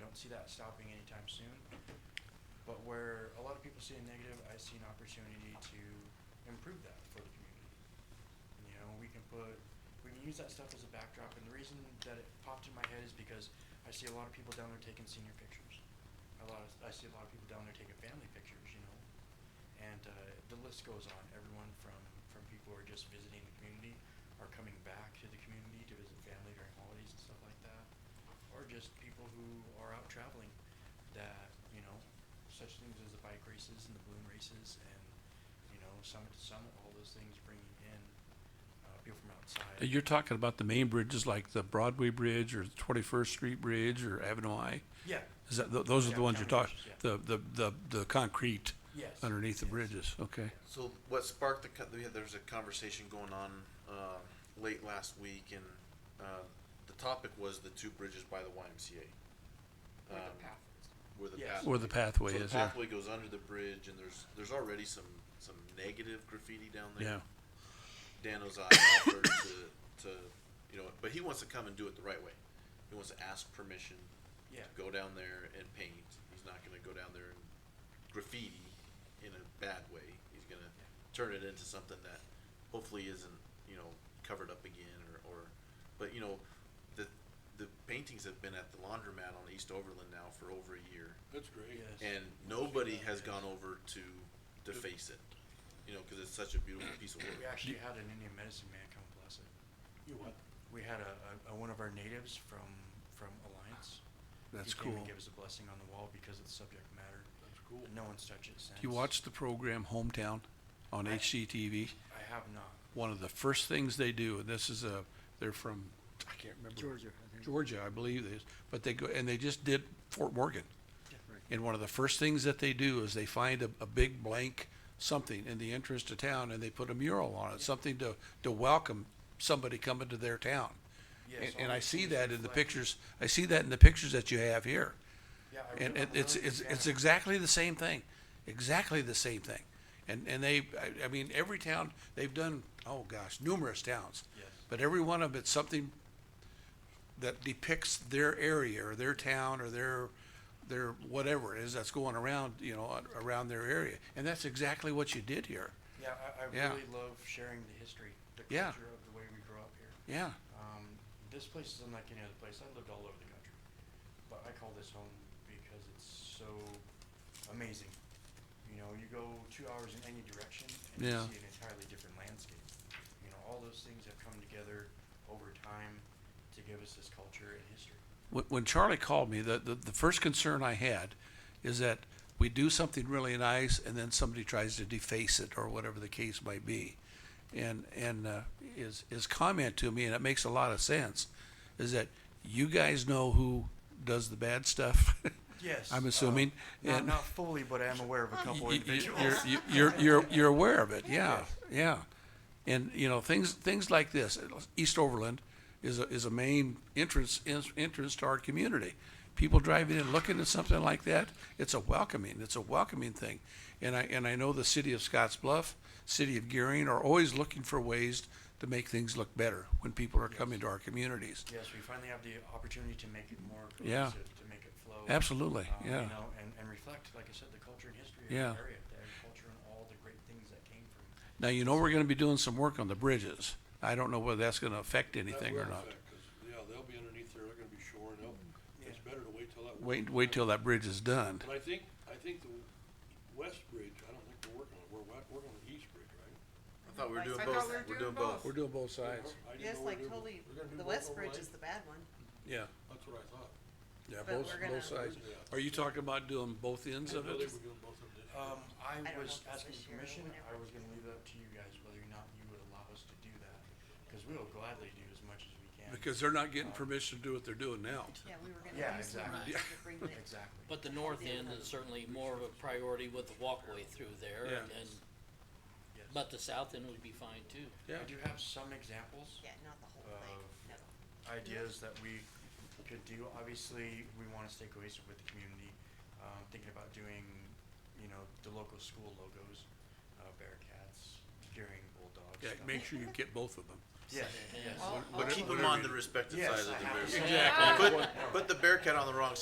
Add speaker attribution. Speaker 1: don't see that stopping anytime soon. But where a lot of people see a negative, I see an opportunity to improve that for the community. You know, we can put, we can use that stuff as a backdrop, and the reason that it popped in my head is because I see a lot of people down there taking senior pictures. A lot of, I see a lot of people down there taking family pictures, you know? And, uh, the list goes on, everyone from, from people who are just visiting the community, are coming back to the community to visit family during holidays and stuff like that, or just people who are out traveling that, you know, such things as the bike races and the balloon races and, you know, summit to summit, all those things bringing in, uh, people from outside.
Speaker 2: You're talking about the main bridges like the Broadway Bridge or the Twenty-first Street Bridge or Avenue I?
Speaker 1: Yeah,
Speaker 2: Is that, tho- those are
Speaker 1: Yeah,
Speaker 2: the ones you're
Speaker 1: county
Speaker 2: talking,
Speaker 1: bridges,
Speaker 2: the, the, the, the concrete
Speaker 1: yes.
Speaker 2: underneath the
Speaker 1: yes.
Speaker 2: bridges, okay?
Speaker 3: So what sparked the, co- we had- there was a conversation going on, uh, late last week and, uh, the topic was the two bridges by the YMCA.
Speaker 4: Or the
Speaker 3: Um,
Speaker 4: path.
Speaker 3: Where the
Speaker 1: Yes.
Speaker 3: path.
Speaker 2: Where the pathway
Speaker 3: So the
Speaker 2: is, yeah,
Speaker 3: pathway goes under the bridge and there's, there's already some, some negative graffiti down
Speaker 2: yeah,
Speaker 3: there. Dan Ozai offered to, to, you know, but he wants to come and do it the right way. He wants to ask permission
Speaker 1: Yeah,
Speaker 3: go down there and paint. He's not gonna go down there and graffiti in a bad way. He's gonna turn it into something that hopefully isn't, you know, covered up again or, or, but you know, the, the paintings have been at the laundromat on East Overland now for over a year.
Speaker 5: That's great.
Speaker 1: yes.
Speaker 3: And nobody has gone over to deface it, you know, cause it's such a beautiful piece of
Speaker 1: We
Speaker 3: work.
Speaker 1: actually had an Indian medicine man come bless it.
Speaker 5: You what?
Speaker 1: We had a, a, a- one of our natives from, from Alliance.
Speaker 2: that's
Speaker 1: He came
Speaker 2: cool.
Speaker 1: and gave us a blessing on the wall because of the subject matter.
Speaker 5: That's cool.
Speaker 1: No one's touched it since.
Speaker 2: You watched the program Hometown on
Speaker 1: I-
Speaker 2: HGTV?
Speaker 1: I have not.
Speaker 2: One of the first things they do, and this is a, they're from, I can't remember.
Speaker 6: Georgia, I think.
Speaker 2: Georgia, I believe it is, but they go, and they just did Fort Morgan. And one of the first things that they do is they find a, a big blank something in the entrance to town and they put a mural on it, something to, to welcome somebody coming to their town.
Speaker 1: Yes,
Speaker 2: And,
Speaker 1: all
Speaker 2: and I
Speaker 1: these
Speaker 2: see
Speaker 1: things
Speaker 2: that in the
Speaker 1: reflect-
Speaker 2: pictures, I see that in the pictures that you have here.
Speaker 1: Yeah, I
Speaker 2: And
Speaker 1: really-
Speaker 2: it,
Speaker 1: I'm
Speaker 2: it's,
Speaker 1: really a
Speaker 2: it's,
Speaker 1: fan
Speaker 2: it's
Speaker 1: of-
Speaker 2: exactly the same thing, exactly the same thing. And, and they, I, I mean, every town, they've done, oh gosh, numerous towns.
Speaker 1: Yes.
Speaker 2: But every one of them, it's something that depicts their area or their town or their, their whatever it is that's going around, you know, a- around their area. And that's exactly what you did here.
Speaker 1: Yeah, I, I
Speaker 2: Yeah.
Speaker 1: really love sharing the history, the
Speaker 2: Yeah.
Speaker 1: culture of the way we grew up here.
Speaker 2: Yeah,
Speaker 1: Um, this place is unlike any other place. I lived all over the country, but I call this home because it's so amazing. You know, you go two hours in any direction and
Speaker 2: Yeah.
Speaker 1: you see an entirely different landscape. You know, all those things have come together over time to give us this culture and history.
Speaker 2: when, when Charlie called me, the, the, the first concern I had is that we do something really nice and then somebody tries to deface it or whatever the case might be. And, and, uh, his, his comment to me, and it makes a lot of sense, is that you guys know who does the bad stuff.
Speaker 1: Yes,
Speaker 2: I'm
Speaker 1: uh,
Speaker 2: assuming,
Speaker 1: Not,
Speaker 2: and-
Speaker 1: not fully, but I am aware of a couple
Speaker 2: Y- y-
Speaker 1: individuals.
Speaker 2: You're, you- you're, you're, you're aware of it, yeah, yeah. And, you know, things, things like this, East Overland is a, is a main entrance, en- entrance to our community. People driving in, looking at something like that, it's a welcoming, it's a welcoming thing. And I, and I know the city of Scotts Bluff, city of Gearing are always looking for ways to make things look better when people are coming to our communities.
Speaker 1: Yes, we finally have the opportunity to make it more
Speaker 2: Yeah.
Speaker 1: cohesive, to make it flow.
Speaker 2: Absolutely,
Speaker 1: um,
Speaker 2: yeah.
Speaker 1: You know, and, and reflect, like I said, the culture and history of
Speaker 2: Yeah.
Speaker 1: the area, the agriculture and all the great things that came from. it.
Speaker 2: Now, you know, we're gonna be doing some work on the bridges. I don't know whether that's gonna affect
Speaker 5: That
Speaker 2: anything or
Speaker 5: will
Speaker 2: not.
Speaker 5: affect, 'cause, yeah, they'll be underneath there, they're gonna be shoring up. It's
Speaker 1: Yeah.
Speaker 5: better to wait till that.
Speaker 2: Wait, wait till that bridge is done.
Speaker 5: But I think, I think the west bridge, I don't think they're working on it, we're, wa- working on the east bridge, right?
Speaker 3: I thought we were
Speaker 4: Like,
Speaker 3: doing
Speaker 4: I
Speaker 3: both,
Speaker 4: thought we were
Speaker 3: we're doing
Speaker 4: doing
Speaker 3: both.
Speaker 4: both.
Speaker 2: doing both
Speaker 5: I didn't
Speaker 7: Yes,
Speaker 5: know we were
Speaker 7: like
Speaker 5: doing-
Speaker 7: totally,
Speaker 5: we're gonna do
Speaker 7: the
Speaker 5: both
Speaker 7: West
Speaker 5: overlay?
Speaker 7: Bridge is the bad one.
Speaker 2: Yeah,
Speaker 5: That's what I thought.
Speaker 2: yeah,
Speaker 7: But
Speaker 2: both,
Speaker 7: we're gonna-
Speaker 2: both sides. Are you talking about doing both ends
Speaker 5: I didn't
Speaker 2: of
Speaker 5: know they
Speaker 2: it?
Speaker 5: were doing both of them.
Speaker 1: Um, I
Speaker 7: don't know
Speaker 1: was
Speaker 7: if it's
Speaker 1: asking
Speaker 7: this year or
Speaker 1: permission,
Speaker 7: whenever
Speaker 1: I was
Speaker 7: it
Speaker 1: gonna leave it up to you guys whether or not you would allow us to do that, cause we will gladly do as much as we can.
Speaker 2: Because they're not getting permission to do what they're doing now.
Speaker 7: Yeah, we were
Speaker 1: Yeah,
Speaker 7: gonna use them
Speaker 1: exactly.
Speaker 7: to bring the,
Speaker 1: Exactly.
Speaker 8: But the north end is certainly more of a priority with the walkway through there
Speaker 2: Yeah.
Speaker 8: and then,
Speaker 1: Yes.
Speaker 8: but the south end would be fine too.
Speaker 2: Yeah.
Speaker 1: I do have some examples.
Speaker 7: yeah, not the whole thing,
Speaker 5: Um,
Speaker 1: Uh,
Speaker 7: no.
Speaker 1: ideas that we could do. Obviously, we want to stay cohesive with the community. Um, thinking about doing, you know, the local school logos, uh, Bearcats, Gearing Bulldogs.
Speaker 2: Yeah,
Speaker 1: stuff
Speaker 2: make
Speaker 1: like-
Speaker 2: sure you get both of them.
Speaker 1: Yes,
Speaker 8: Yeah.
Speaker 1: yes.
Speaker 7: All-
Speaker 3: But
Speaker 7: all
Speaker 3: keep
Speaker 7: of
Speaker 3: them on the respective
Speaker 1: Yes,
Speaker 3: sides
Speaker 1: I
Speaker 3: of
Speaker 1: have
Speaker 3: the
Speaker 1: to
Speaker 3: bear.
Speaker 1: say-
Speaker 3: Put, put the bear cat on the wrong side.